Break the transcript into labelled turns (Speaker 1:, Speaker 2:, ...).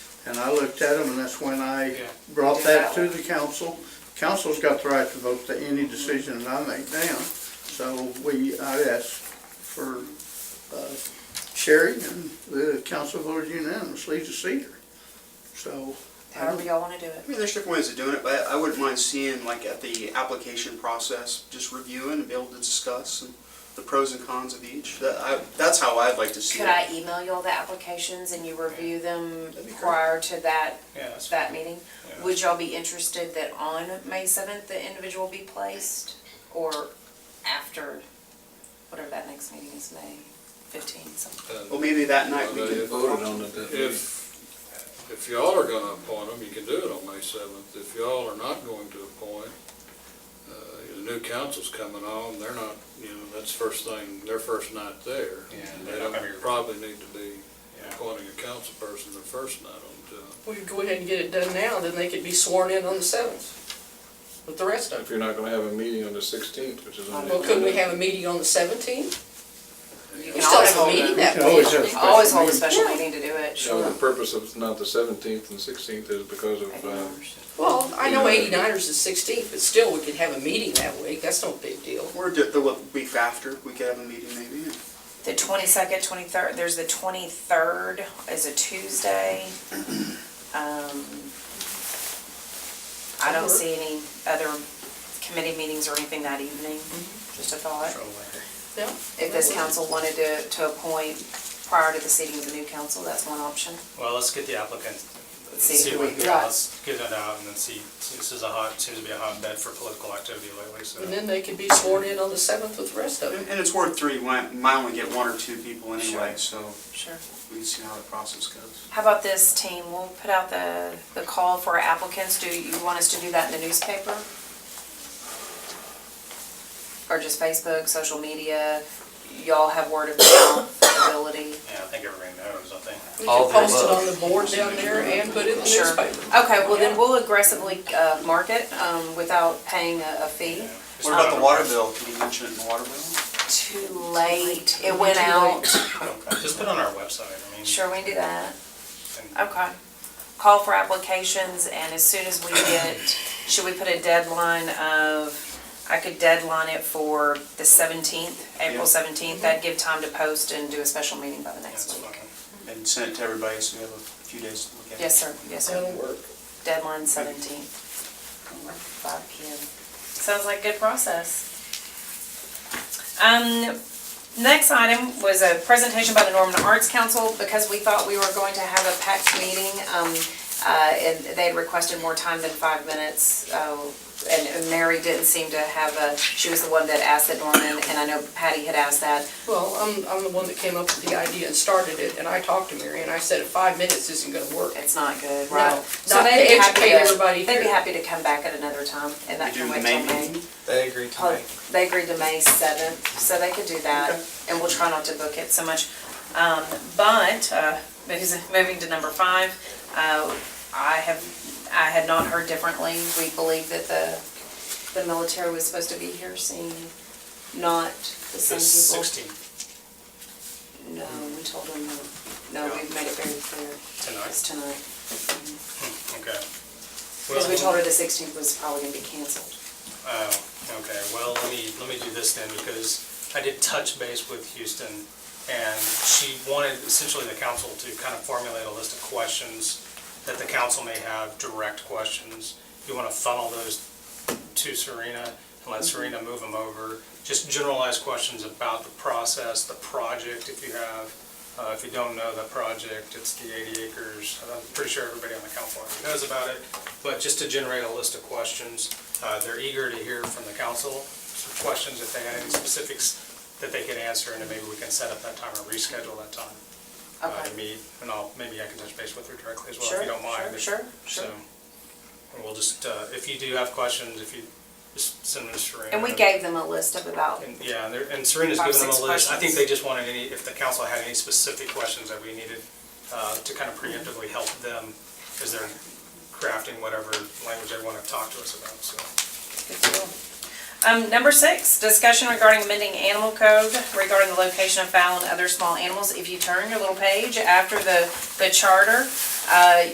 Speaker 1: And I looked at them, and that's when I
Speaker 2: Yeah.
Speaker 1: brought that to the council. Council's got the right to vote to any decision that I make down. So we, I asked for uh, Sherry, and the council voted unanimously to see her. So,
Speaker 3: however y'all wanna do it.
Speaker 4: I mean, there's different ways of doing it, but I wouldn't mind seeing, like, at the application process, just reviewing and be able to discuss and the pros and cons of each. That, I, that's how I'd like to see
Speaker 3: Could
Speaker 4: it.
Speaker 3: I email y'all the applications and you review them
Speaker 4: That'd be great.
Speaker 3: prior to that,
Speaker 2: Yeah, that's
Speaker 3: that meeting?
Speaker 2: Yeah.
Speaker 3: Would y'all be interested that on May seventh, the individual be placed? Or after, whatever that next meeting is, May fifteenth, something?
Speaker 4: Well, maybe that night we
Speaker 5: Well, they
Speaker 4: could.
Speaker 5: voted on it that meeting.
Speaker 6: If, if y'all are gonna appoint them, you can do it on May seventh. If y'all are not going to appoint, uh, the new council's coming on, they're not, you know, that's first thing, their first night there.
Speaker 2: Yeah,
Speaker 6: And
Speaker 2: they're
Speaker 6: They
Speaker 2: not
Speaker 6: don't
Speaker 2: gonna be-
Speaker 6: probably need to be
Speaker 2: Yeah.
Speaker 6: appointing a council person their first night on the job.
Speaker 7: We could go ahead and get it done now, then they could be sworn in on the seventh with the rest of
Speaker 5: If
Speaker 7: them.
Speaker 5: you're not gonna have a meeting on the sixteenth, which is on the.
Speaker 7: Well, couldn't we have a meeting on the seventeenth?
Speaker 3: You
Speaker 7: We
Speaker 3: can
Speaker 7: still
Speaker 3: always
Speaker 7: have a
Speaker 3: hold,
Speaker 7: meeting that
Speaker 1: We can always
Speaker 7: week.
Speaker 1: have-
Speaker 3: always hold a
Speaker 1: Special
Speaker 3: special meeting to do it,
Speaker 5: So
Speaker 3: sure.
Speaker 5: the purpose of not the seventeenth and sixteenth is because of, uh,
Speaker 7: Well, I know 89ers is the sixteenth, but still, we could have a meeting that week, that's no big deal.
Speaker 4: Or do- the week after, we could have a meeting maybe.
Speaker 3: The twenty-second, twenty-third, there's the twenty-third is a Tuesday. Um, I don't see any other committee meetings or anything that evening, just a thought.
Speaker 7: Yeah.
Speaker 3: If this council wanted to, to appoint prior to the seating of the new council, that's one option.
Speaker 2: Well, let's get the applicant, let's
Speaker 3: See
Speaker 2: see
Speaker 3: who
Speaker 2: what,
Speaker 3: we
Speaker 2: yeah,
Speaker 3: got.
Speaker 2: let's get it out and then see, see, this is a hot, seems to be a hotbed for political activity lately, so.
Speaker 3: Mm-hmm.
Speaker 7: And then they could be sworn in on the seventh with the rest of
Speaker 4: And
Speaker 7: them.
Speaker 4: and it's Ward Three, we might only get one or two people anyway, so
Speaker 3: Sure.
Speaker 4: we can see how the process goes.
Speaker 3: How about this team? We'll put out the, the call for applicants. Do you want us to do that in the newspaper? Or just Facebook, social media? Y'all have word of mouth ability?
Speaker 2: Yeah, I think everybody knows, I think.
Speaker 7: We
Speaker 8: All
Speaker 7: could
Speaker 8: the
Speaker 7: post it on
Speaker 8: above.
Speaker 7: the board down there and put it in the
Speaker 3: Sure.
Speaker 7: newspaper.
Speaker 3: Okay, well then we'll aggressively uh, market um, without paying a a fee.
Speaker 4: What about the water bill? Can you mention it in the water bill?
Speaker 3: Too late. It went out.
Speaker 2: Okay, Just put it on our website, I mean.
Speaker 3: Sure, we can do that.
Speaker 2: and-
Speaker 3: Okay. Call for applications, and as soon as we get, should we put a deadline of, I could deadline it for the seventeenth, April
Speaker 4: Yeah.
Speaker 3: seventeenth, that'd give time to post and do a special meeting by the
Speaker 2: yeah, it's
Speaker 3: next week.
Speaker 2: fine.
Speaker 4: And send it to everybody so we have a few days to look at it.
Speaker 3: Yes, sir, yes,
Speaker 7: That'll
Speaker 3: sir,
Speaker 7: work.
Speaker 3: deadline seventeenth, five P M. Sounds like good process. Um, next item was a presentation by the Norman Arts Council, because we thought we were going to have a packed meeting, um, uh, and they had requested more time than five minutes, uh, and and Mary didn't seem to have a, she was the one that asked it, Norman, and I know Patty had asked that.
Speaker 7: Well, I'm, I'm the one that came up with the idea and started it, and I talked to Mary, and I said, five minutes isn't gonna work.
Speaker 3: It's not good,
Speaker 7: No,
Speaker 3: right?
Speaker 7: not
Speaker 3: So they'd be
Speaker 7: to
Speaker 3: happy
Speaker 7: educate everybody
Speaker 3: They'd be
Speaker 7: here.
Speaker 3: happy to come back at another time, and that
Speaker 4: We do
Speaker 3: can
Speaker 4: the
Speaker 3: wait
Speaker 4: main
Speaker 3: till May.
Speaker 4: meeting?
Speaker 8: They agreed to
Speaker 3: Oh,
Speaker 8: make.
Speaker 3: They agreed to May seventh, so they could do that, and we'll try not to book it so much. Um, but, uh, because- moving to number five, uh, I have, I had not heard differently. We believe that the, the military was supposed to be here, seeing not the
Speaker 2: The
Speaker 3: same people.
Speaker 2: sixteen,
Speaker 3: No, we told them, no. no, we've made it very clear, it's
Speaker 2: tonight,
Speaker 3: tonight.
Speaker 2: okay.
Speaker 3: Because we
Speaker 2: Well-
Speaker 3: told her the sixteenth was probably gonna be canceled.
Speaker 2: Oh, okay, well, let me, let me do this then, because I did touch base with Houston, and she wanted essentially the council to kind of formulate a list of questions that the council may have, direct questions. You want to funnel those to Serena, and let Serena move them over. Just generalized questions about the process, the project, if you have. Uh, If you don't know the project, it's the 80 acres. I'm pretty sure everybody on the council already knows about it, but just to generate a list of questions. uh, They're eager to hear from the council, some questions if they had any specifics that they could answer, and then maybe we can set up that time or reschedule that time uh, to
Speaker 3: Okay.
Speaker 2: meet. And I'll, maybe I can touch base with her directly as well, if
Speaker 3: Sure,
Speaker 2: you don't
Speaker 3: sure,
Speaker 2: mind.
Speaker 3: sure,
Speaker 2: So,
Speaker 3: sure.
Speaker 2: and we'll just, uh, if you do have questions, if you just send them to Serena.
Speaker 3: And we gave them a list of about,
Speaker 2: And, Yeah, and they're- and Serena's
Speaker 3: Five,
Speaker 2: given them a
Speaker 3: six
Speaker 2: list. I think
Speaker 3: questions.
Speaker 2: they just wanted any, if the council had any specific questions that we needed uh, to kind of preemptively help them as they're crafting whatever language they want to talk to us about, so.
Speaker 3: Um, number six, discussion regarding amending animal code regarding the location of fowl and other small animals. If you turn your little page after the, the charter, uh,